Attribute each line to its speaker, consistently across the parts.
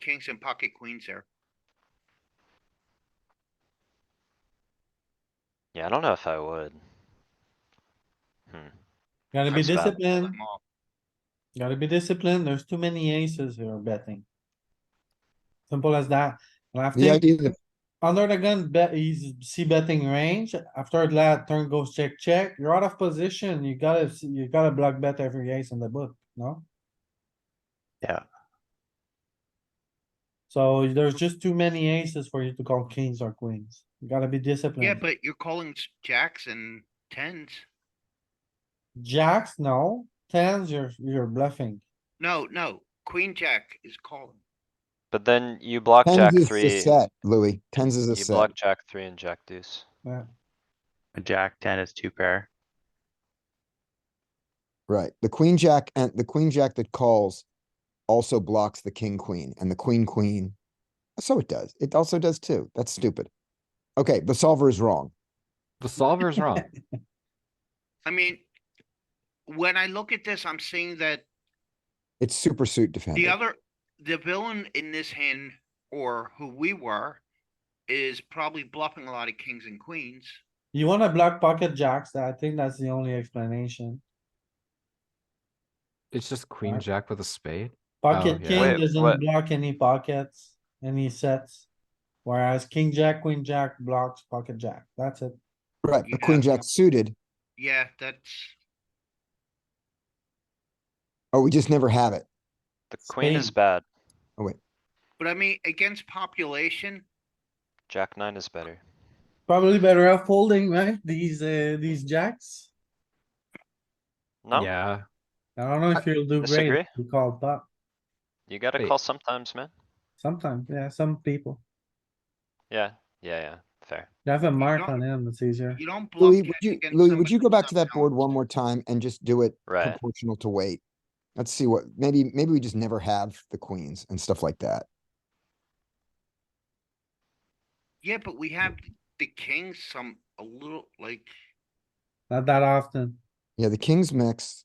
Speaker 1: kings and pocket queens there.
Speaker 2: Yeah, I don't know if I would.
Speaker 3: Gotta be
Speaker 2: That's bad.
Speaker 3: disciplined,
Speaker 1: I'm all-
Speaker 3: gotta be disciplined. There's too many aces here betting. Simple as that. Well,
Speaker 4: The
Speaker 3: after,
Speaker 4: idea that
Speaker 3: under the gun, bet, he's see betting range. After that, turn goes check, check. You're out of position. You gotta, you gotta block bet every ace in the book, no?
Speaker 2: Yeah.
Speaker 3: So there's just too many aces for you to call kings or queens. You gotta be disciplined.
Speaker 1: Yeah, but you're calling s- jacks and tens.
Speaker 3: Jacks, no. Tens, you're, you're bluffing.
Speaker 1: No, no, queen jack is calling.
Speaker 2: But then you block jack
Speaker 4: tens is the
Speaker 2: three,
Speaker 4: set, Louis. Tens is a
Speaker 2: you
Speaker 4: set.
Speaker 2: block jack three and jack deuce.
Speaker 5: A jack ten is two pair.
Speaker 4: Right. The queen jack and the queen jack that calls also blocks the king queen and the queen queen. So it does. It also does too. That's stupid. Okay, the solver is wrong.
Speaker 6: The solver is wrong.
Speaker 1: I mean, when I look at this, I'm seeing that
Speaker 4: It's super suit defender.
Speaker 1: The other, the villain in this hand, or who we were, is probably bluffing a lot of kings and queens.
Speaker 3: You wanna block pocket jacks, I think that's the only explanation.
Speaker 6: It's just queen
Speaker 3: Alright.
Speaker 6: jack with a spade.
Speaker 3: Pocket
Speaker 6: yeah.
Speaker 3: king
Speaker 2: Wait,
Speaker 3: doesn't
Speaker 2: what-
Speaker 3: block any pockets, any sets. Whereas king jack, queen jack blocks pocket jack, that's it.
Speaker 4: Right,
Speaker 1: you
Speaker 4: but queen
Speaker 1: have-
Speaker 4: jack suited.
Speaker 1: Yeah, that's,
Speaker 4: Oh, we just never have it.
Speaker 2: The queen is
Speaker 3: Same.
Speaker 2: bad,
Speaker 1: but I mean, against population,
Speaker 2: jack nine is better.
Speaker 3: Probably better off folding, right? These, uh, these jacks.
Speaker 2: No,
Speaker 6: Yeah,
Speaker 3: I don't know if you'll do great,
Speaker 2: disagree.
Speaker 3: you call pop,
Speaker 2: you gotta
Speaker 6: Wait.
Speaker 2: call sometimes, man.
Speaker 3: sometimes, yeah, some people.
Speaker 2: Yeah, yeah, yeah, fair.
Speaker 3: You have a mark
Speaker 1: don't-
Speaker 3: on him, it's easier.
Speaker 1: you don't bluff.
Speaker 4: Louis,
Speaker 1: jack
Speaker 4: would you,
Speaker 1: against
Speaker 4: Louis, would
Speaker 1: somebody
Speaker 4: you go back
Speaker 1: without
Speaker 4: to that board one
Speaker 1: balance.
Speaker 4: more time and just do it
Speaker 2: Right,
Speaker 4: proportional to weight? Let's see what, maybe, maybe we just never have the queens and stuff like that.
Speaker 1: Yeah, but we have the kings some, a little, like,
Speaker 3: Not that often.
Speaker 4: Yeah, the kings mix.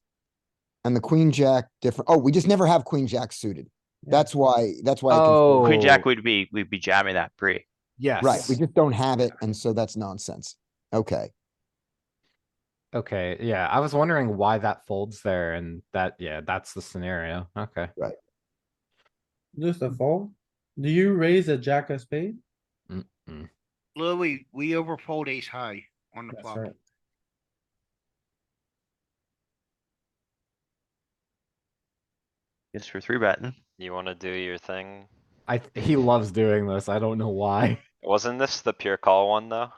Speaker 4: And the queen jack different. Oh, we just never have queen jack suited.
Speaker 3: Yeah.
Speaker 4: That's why, that's why. I confused-
Speaker 6: Oh.
Speaker 5: Queen jack
Speaker 6: Oh.
Speaker 5: would be, we'd be jamming that pre.
Speaker 6: yes.
Speaker 4: Right, we just don't have it, and so that's nonsense. Okay,
Speaker 6: Okay, yeah, I was wondering why that folds there and that, yeah, that's the scenario. Okay.
Speaker 3: Just a fold. Do you raise a jack of spade?
Speaker 1: Louis, we overfold ace high on the
Speaker 3: That's
Speaker 1: flop.
Speaker 3: right.
Speaker 5: Yes, for three betting.
Speaker 2: you wanna do your thing?
Speaker 6: I, th- he loves doing this. I don't know why.
Speaker 2: Wasn't this the pure call one, though?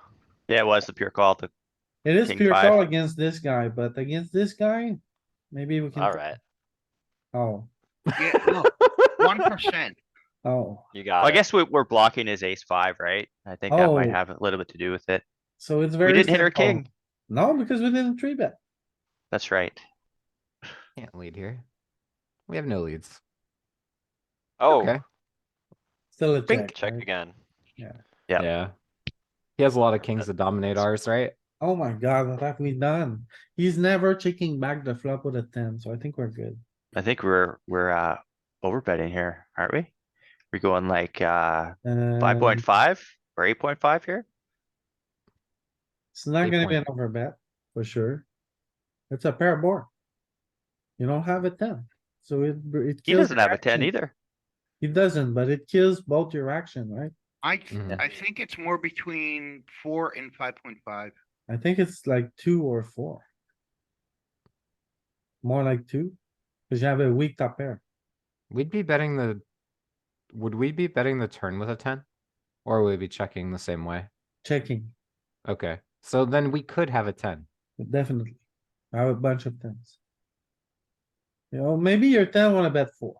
Speaker 5: Yeah, it was the pure call. The
Speaker 3: It is
Speaker 5: King
Speaker 3: pure
Speaker 5: five.
Speaker 3: call against this guy, but against this guy, maybe we can.
Speaker 2: Alright,
Speaker 3: Oh,
Speaker 1: Yeah, one percent.
Speaker 3: oh,
Speaker 2: you
Speaker 5: Well, I
Speaker 2: got it.
Speaker 5: guess we, we're blocking his ace five, right? I think that might
Speaker 3: Oh.
Speaker 5: have a little bit to do with it.
Speaker 3: so it's very.
Speaker 5: We didn't hit our
Speaker 3: simple.
Speaker 5: king.
Speaker 3: No, because we didn't three bet.
Speaker 5: That's right.
Speaker 6: Can't lead here. We have no leads.
Speaker 2: Oh,
Speaker 6: okay.
Speaker 3: Still a check.
Speaker 2: check
Speaker 3: right?
Speaker 2: again.
Speaker 5: Yeah.
Speaker 6: Yeah. He has a lot of kings to dominate ours, right?
Speaker 3: Oh my god, what have we done? He's never checking back the flop with a ten, so I think we're good.
Speaker 5: I think we're, we're, uh, over betting here, aren't we? We're going like, uh, five point
Speaker 3: Um,
Speaker 5: five or eight point five here?
Speaker 3: It's not gonna be an
Speaker 6: 8.5.
Speaker 3: overbet, for sure. It's a pair board. You don't have a ten, so it. it
Speaker 5: He
Speaker 3: kills
Speaker 5: doesn't
Speaker 3: your
Speaker 5: have a ten
Speaker 3: action.
Speaker 5: either.
Speaker 3: He doesn't, but it kills both your action, right?
Speaker 1: I, th-
Speaker 3: Mm-hmm.
Speaker 6: Mhm.
Speaker 1: I think it's more between four and five point five.
Speaker 3: I think it's like two or four. More like two, cause you have a weak top pair.
Speaker 6: We'd be betting the, would we be betting the turn with a ten? Or would we be checking the same way?
Speaker 3: Checking,
Speaker 6: Okay, so then we could have a ten.
Speaker 3: definitely. I have a bunch of tens. You know, maybe your ten wanna bet four,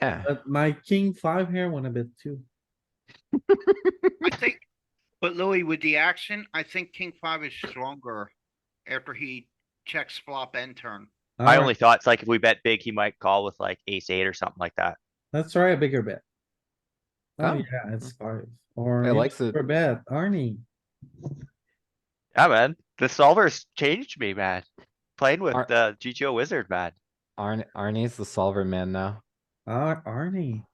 Speaker 6: Eh,
Speaker 3: but my king five here wanna bet two.
Speaker 1: I think, but Louis, with the action, I think king five is stronger after he checks flop and turn.
Speaker 5: My
Speaker 3: Alright,
Speaker 5: only thought's like if we bet big, he might call with like ace eight or something like that.
Speaker 3: Let's try a bigger bet. Oh
Speaker 6: Oh.
Speaker 3: yeah, it's five, or.
Speaker 6: I
Speaker 3: even
Speaker 6: likes it.
Speaker 3: bigger Bet, Arnie,
Speaker 5: Yeah, man, the solver's changed me, man. Playing with
Speaker 6: Are-
Speaker 5: the GTO wizard, man.
Speaker 6: Arn, Arnie's the solver man now.
Speaker 3: Ar- Arnie,